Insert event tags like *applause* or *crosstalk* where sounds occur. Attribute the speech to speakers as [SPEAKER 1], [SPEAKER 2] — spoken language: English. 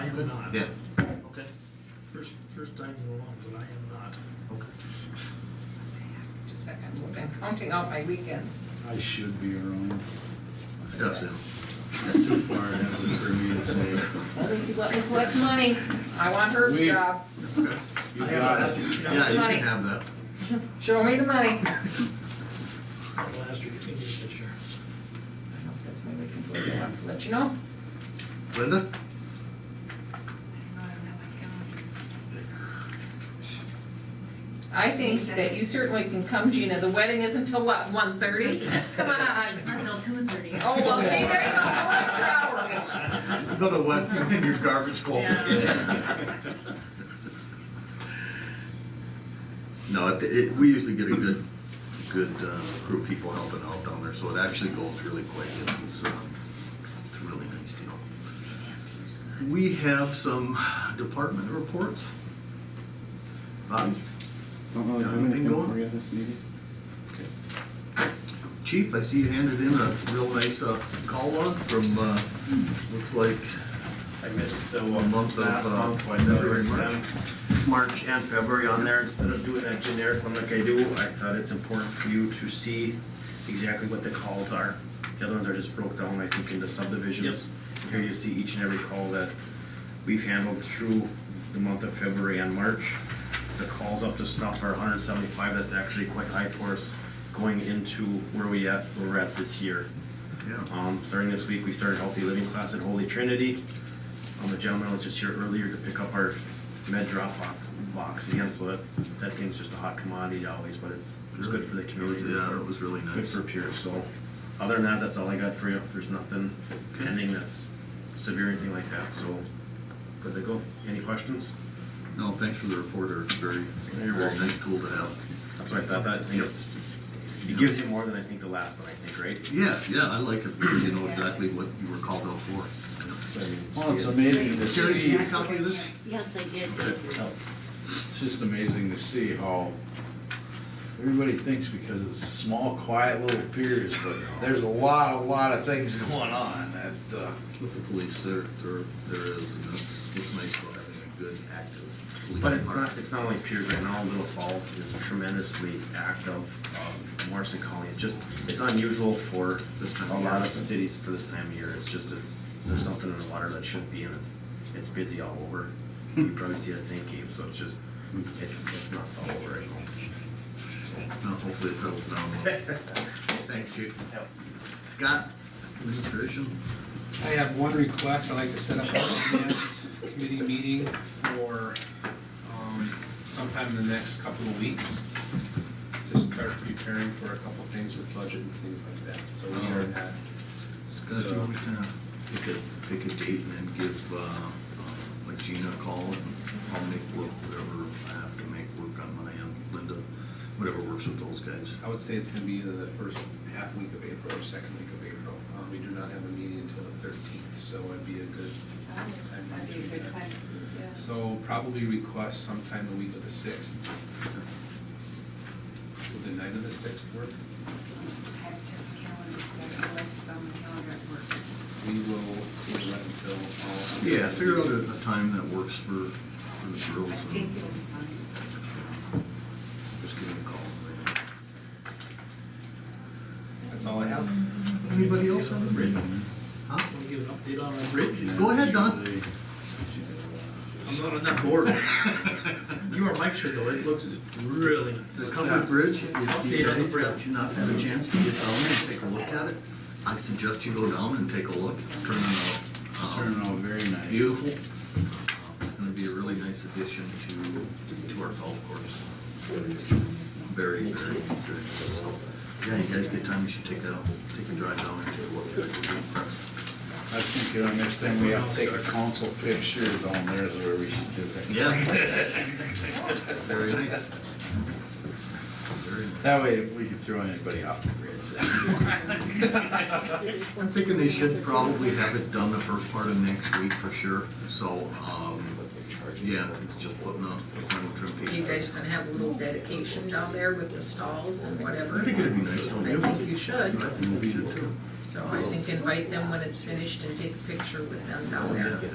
[SPEAKER 1] am not.
[SPEAKER 2] Yeah.
[SPEAKER 1] Okay. First, first time in a long, but I am not.
[SPEAKER 2] Okay.
[SPEAKER 3] Just a second, I've been counting out my weekends.
[SPEAKER 4] I should be around.
[SPEAKER 2] Stuff, so.
[SPEAKER 4] It's too far ahead for me to say.
[SPEAKER 3] Only if you let me collect money. I want Herb's
[SPEAKER 4] We-
[SPEAKER 3] job.
[SPEAKER 2] Okay.
[SPEAKER 4] You got it.
[SPEAKER 2] Yeah, you
[SPEAKER 3] Money.
[SPEAKER 2] can have that.
[SPEAKER 3] Show me the money.
[SPEAKER 1] Last year, in this year.
[SPEAKER 3] I hope that's my weekend for you. I'll Let you know.
[SPEAKER 2] Linda?
[SPEAKER 3] I think that you certainly can come, Gina. The wedding isn't till what, one thirty? Come on.
[SPEAKER 5] Until two and thirty.
[SPEAKER 3] Oh, well, see, there you go, an extra hour.
[SPEAKER 2] Go to what, *laughs* in your garbage clothes? *laughs* No, it, it, we usually get a good, good, uh, group of people helping out down there, so it actually goes really quick, and it's, um, it's a really nice deal. We have some department reports. Um, Bobby,
[SPEAKER 4] Don't really
[SPEAKER 2] have anything for
[SPEAKER 4] you this meeting.
[SPEAKER 2] Chief, I see you handed in a real nice, uh, call log from, uh, looks like
[SPEAKER 6] I missed the
[SPEAKER 2] A
[SPEAKER 6] one
[SPEAKER 2] month
[SPEAKER 6] last
[SPEAKER 2] of, uh,
[SPEAKER 6] month, so I
[SPEAKER 2] February,
[SPEAKER 6] never
[SPEAKER 2] March.
[SPEAKER 6] sent um, March and February on there, instead of doing that generic one like I do, I thought it's important for you to see exactly what the calls are. The other ones are just broke down, I think, into subdivisions. Here you see each and every call that we've handled through the month of February and March. The calls up to snuff are hundred and seventy-five, that's actually quite high for us going into where we at, where we're at this year.
[SPEAKER 2] Yeah.
[SPEAKER 6] Um, starting this week, we started healthy living class at Holy Trinity. Um, the gentleman was just here earlier to pick up our med drop box, box again, so that, that thing's just a hot commodity always, but it's, it's good for the community.
[SPEAKER 2] Yeah, it was really
[SPEAKER 6] Good
[SPEAKER 2] nice.
[SPEAKER 6] for peers, so, other than that, that's all I got for you, there's nothing pending that's severe, or anything like that, so, good to go. Any questions?
[SPEAKER 2] No, thanks for the report, Eric, very, very nice tool to have.
[SPEAKER 6] That's what I thought, that, I think it's, it gives you more than I think the last one, I think, right?
[SPEAKER 2] Yeah, yeah, I like it, because you know exactly what you were called out for.
[SPEAKER 6] So, I mean,
[SPEAKER 4] Well, it's
[SPEAKER 6] see it.
[SPEAKER 4] amazing to
[SPEAKER 2] Carrie, do you
[SPEAKER 4] see,
[SPEAKER 2] need a copy of this?
[SPEAKER 5] Yes, I did.
[SPEAKER 4] it's just amazing to see how everybody thinks because it's small, quiet little piers, but there's a lot, a lot of things going on at, uh,
[SPEAKER 2] With the police, there, there, there is, and that's what's nice about having a good, active police
[SPEAKER 6] But it's
[SPEAKER 2] department.
[SPEAKER 6] not, it's not only Piers right now, Little Falls is tremendously active, um, Morrison County, it's just, it's unusual for this time, a lot of cities for this time of year, it's just, it's, there's something in the water that shouldn't be, and it's, it's busy all over. You probably see that same game, so it's just, it's, it's nuts all over right now.
[SPEAKER 2] No, hopefully it settles down.
[SPEAKER 6] *laughs*
[SPEAKER 2] Thanks, Chief.
[SPEAKER 6] So,
[SPEAKER 2] Scott, administration?
[SPEAKER 7] I have one request, I'd like to set up a finance committee meeting for um, sometime in the next couple of weeks. Just start preparing for a couple of things with budget and things like that, so we are
[SPEAKER 2] Um,
[SPEAKER 7] at,
[SPEAKER 2] Scott, you want me to kind of pick a, pick a date and then give, uh, uh, like Gina a call and I'll make work whatever I have to make work on my end, Linda, whatever works with those guys.
[SPEAKER 7] I would say it's gonna be either the first half week of April or second week of April. Um, We do not have a meeting until the thirteenth, so it'd be a good time to do that. So probably request sometime the week of the sixth. Will the night of the sixth work? We will, we'll let until all.
[SPEAKER 2] Yeah, figure out a, a time that works for, for the girls and just give them a call.
[SPEAKER 7] That's all I have.
[SPEAKER 2] Anybody else on the bridge? Huh?
[SPEAKER 1] Want to give an update on our bridge?
[SPEAKER 2] Go ahead, Don.
[SPEAKER 1] I'm not on that board. You or Mike should though, it looks really.
[SPEAKER 2] The covered bridge, if you
[SPEAKER 1] Update on the
[SPEAKER 2] guys have
[SPEAKER 1] bridge.
[SPEAKER 2] not had a chance to get down and take a look at it, I suggest you go down and take a look. It's turning
[SPEAKER 4] it's
[SPEAKER 2] out, um,
[SPEAKER 4] turning out very nice.
[SPEAKER 2] beautiful. uh, It's gonna be a really nice addition to, to our golf course. Very, very, very. Yeah, you guys get time, you should take a, take a drive down and take a look at it. We're impressed.
[SPEAKER 4] I think the next time we have to take a council picture down there is where we should do that.
[SPEAKER 2] Yeah. Very nice. Very nice.
[SPEAKER 4] That way we can throw anybody off the grid.
[SPEAKER 2] I'm thinking they should probably have it done the first part of next week for sure, so, um, yeah, it's just putting up the final trim piece.
[SPEAKER 3] You guys gonna have a little dedication down there with the stalls and whatever?
[SPEAKER 2] I think it'd be nice, don't
[SPEAKER 3] I
[SPEAKER 2] you?
[SPEAKER 3] think you should,
[SPEAKER 2] I think we should too.
[SPEAKER 3] so I think invite them when it's finished and take a picture with them down there.